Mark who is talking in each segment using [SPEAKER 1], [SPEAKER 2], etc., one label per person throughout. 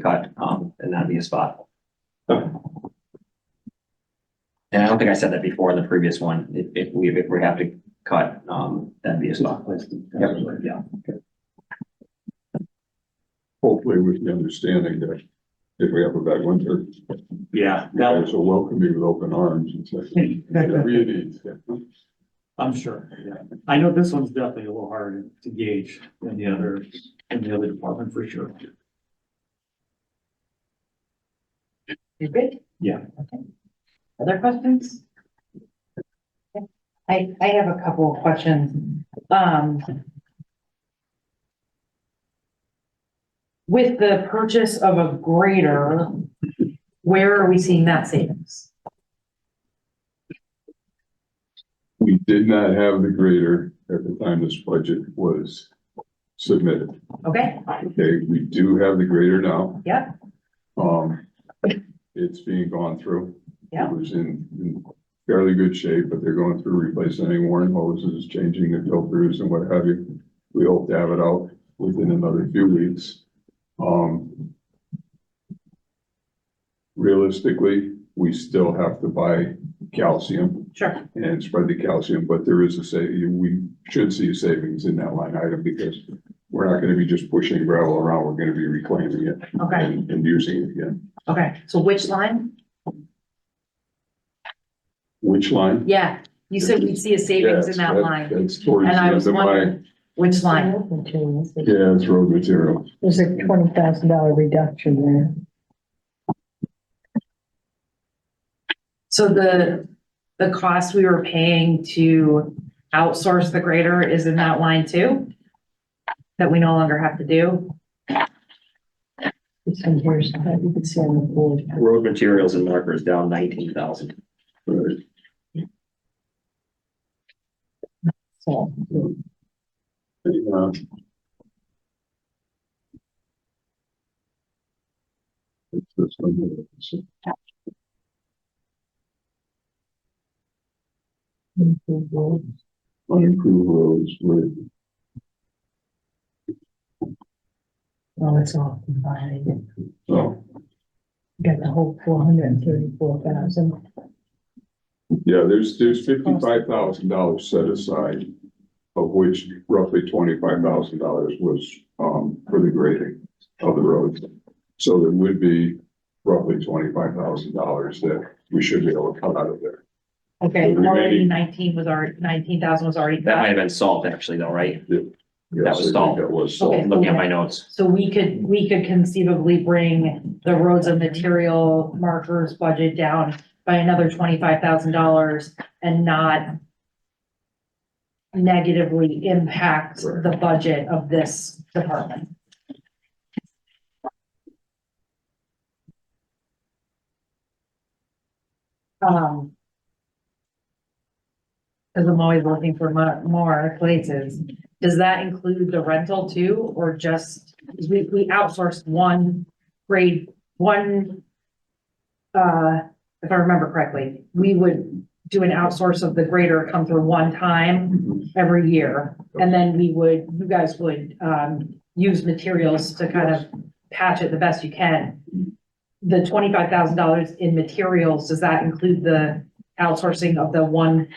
[SPEAKER 1] cut, um, and that'd be a spot.
[SPEAKER 2] Okay.
[SPEAKER 1] And I don't think I said that before in the previous one, if, if we, if we have to cut, um, that'd be a spot. Yep, yeah.
[SPEAKER 3] hopefully with the understanding that if we have a bad winter,
[SPEAKER 2] Yeah,
[SPEAKER 3] you
[SPEAKER 2] that,
[SPEAKER 3] guys will welcome me with open arms and say, whatever you need.
[SPEAKER 2] I'm sure, yeah. I know this one's definitely a little harder to gauge than the other, than the other department for sure.
[SPEAKER 4] You're good?
[SPEAKER 2] Yeah.
[SPEAKER 4] Okay. Other questions? I, I have a couple of questions. Um. With the purchase of a grader, where are we seeing that savings?
[SPEAKER 3] We did not have the grader at the time this budget was submitted.
[SPEAKER 4] Okay,
[SPEAKER 3] Okay, we do have the grader now.
[SPEAKER 4] Yeah.
[SPEAKER 3] Um, it's being gone through.
[SPEAKER 4] Yeah.
[SPEAKER 3] It was in, in fairly good shape, but they're going through replacing any worn hoses, changing the filters and what have you. We hope to have it out within another few weeks. Um, realistically, we still have to buy calcium
[SPEAKER 4] sure,
[SPEAKER 3] and spread the calcium, but there is a sa- we should see savings in that line item because we're not gonna be just pushing gravel around, we're gonna be reclaiming it
[SPEAKER 4] okay,
[SPEAKER 3] and, and using it again.
[SPEAKER 4] okay, so which line?
[SPEAKER 3] Which line?
[SPEAKER 4] Yeah, you said we'd see a savings in that
[SPEAKER 3] Yes,
[SPEAKER 4] line,
[SPEAKER 3] That's towards
[SPEAKER 4] and
[SPEAKER 3] the
[SPEAKER 4] I
[SPEAKER 3] end
[SPEAKER 4] was
[SPEAKER 3] of my,
[SPEAKER 4] wondering, which line?
[SPEAKER 3] yeah, it's road material.
[SPEAKER 5] There's a twenty thousand dollar reduction there.
[SPEAKER 4] So the, the cost we were paying to outsource the grader is in that line too? That we no longer have to do?
[SPEAKER 5] It's in here, so that you can see on the board.
[SPEAKER 1] Road materials and markers down nineteen thousand.
[SPEAKER 3] Right.
[SPEAKER 5] So
[SPEAKER 3] Uh, it's this one here. So, Unimproved roads with,
[SPEAKER 5] Well, it's all combined.
[SPEAKER 3] so,
[SPEAKER 5] Got the whole four hundred and thirty-four thousand.
[SPEAKER 3] yeah, there's, there's fifty-five thousand dollars set aside, of which roughly twenty-five thousand dollars was, um, for the grading of the roads. So there would be roughly twenty-five thousand dollars that we should be able to cut out of there.
[SPEAKER 4] Okay,
[SPEAKER 3] The
[SPEAKER 4] already
[SPEAKER 3] remaining-
[SPEAKER 4] nineteen was already, nineteen thousand was already
[SPEAKER 1] That might
[SPEAKER 4] cut.
[SPEAKER 1] have been salt actually though, right?
[SPEAKER 3] Yes, I
[SPEAKER 1] was
[SPEAKER 3] think
[SPEAKER 1] stalled.
[SPEAKER 3] That was
[SPEAKER 4] Okay.
[SPEAKER 3] stalled.
[SPEAKER 1] Looking at my notes.
[SPEAKER 4] So we could, we could conceivably bring the roads and material markers budget down by another twenty-five thousand dollars and not negatively impact the budget of this department. Um. Cause I'm always looking for mo- more places. Does that include the rental too, or just, 'cause we, we outsourced one grade, one. Uh, if I remember correctly, we would do an outsource of the grader come through one time
[SPEAKER 3] Mhm.
[SPEAKER 4] every year. And then we would, you guys would, um, use materials to kind of patch it the best you can. The twenty-five thousand dollars in materials, does that include the outsourcing of the one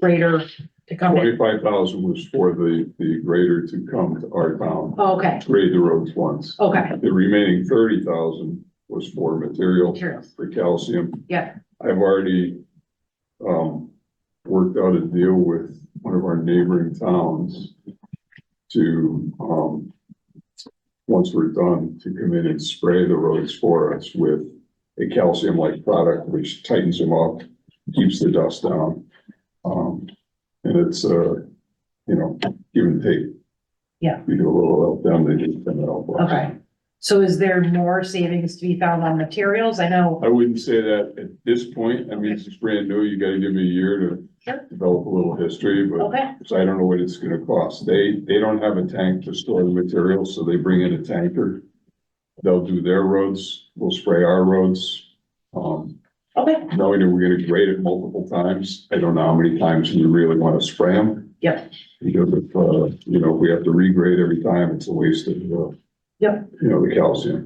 [SPEAKER 4] grader to come in?
[SPEAKER 3] Twenty-five thousand was for the, the grader to come to our town,
[SPEAKER 4] Oh, Okay,
[SPEAKER 3] grade the roads once.
[SPEAKER 4] okay,
[SPEAKER 3] The remaining thirty thousand was for material,
[SPEAKER 4] materials,
[SPEAKER 3] for calcium.
[SPEAKER 4] yeah,
[SPEAKER 3] I've already, um, worked out a deal with one of our neighboring towns to, um, once we're done, to come in and spray the roads for us with a calcium-like product which tightens them up, keeps the dust down. Um, and it's, uh, you know, give and take.
[SPEAKER 4] Yeah.
[SPEAKER 3] We do a little help them, they just come out.
[SPEAKER 4] okay. So is there more savings to be found on materials? I know,
[SPEAKER 3] I wouldn't say that at this point. I mean, it's brand new. You gotta give me a year
[SPEAKER 4] Sure.
[SPEAKER 3] to develop a little history, but
[SPEAKER 4] okay,
[SPEAKER 3] so I don't know what it's gonna cost. They, they don't have a tank to store the material, so they bring in a tanker. They'll do their roads. We'll spray our roads. Um,
[SPEAKER 4] okay,
[SPEAKER 3] knowing that we're gonna grade it multiple times. I don't know how many times you really wanna spray them.
[SPEAKER 4] Yep.
[SPEAKER 3] Because if, uh, you know, if we have to regrade every time, it's a waste of, uh, You know, the calcium.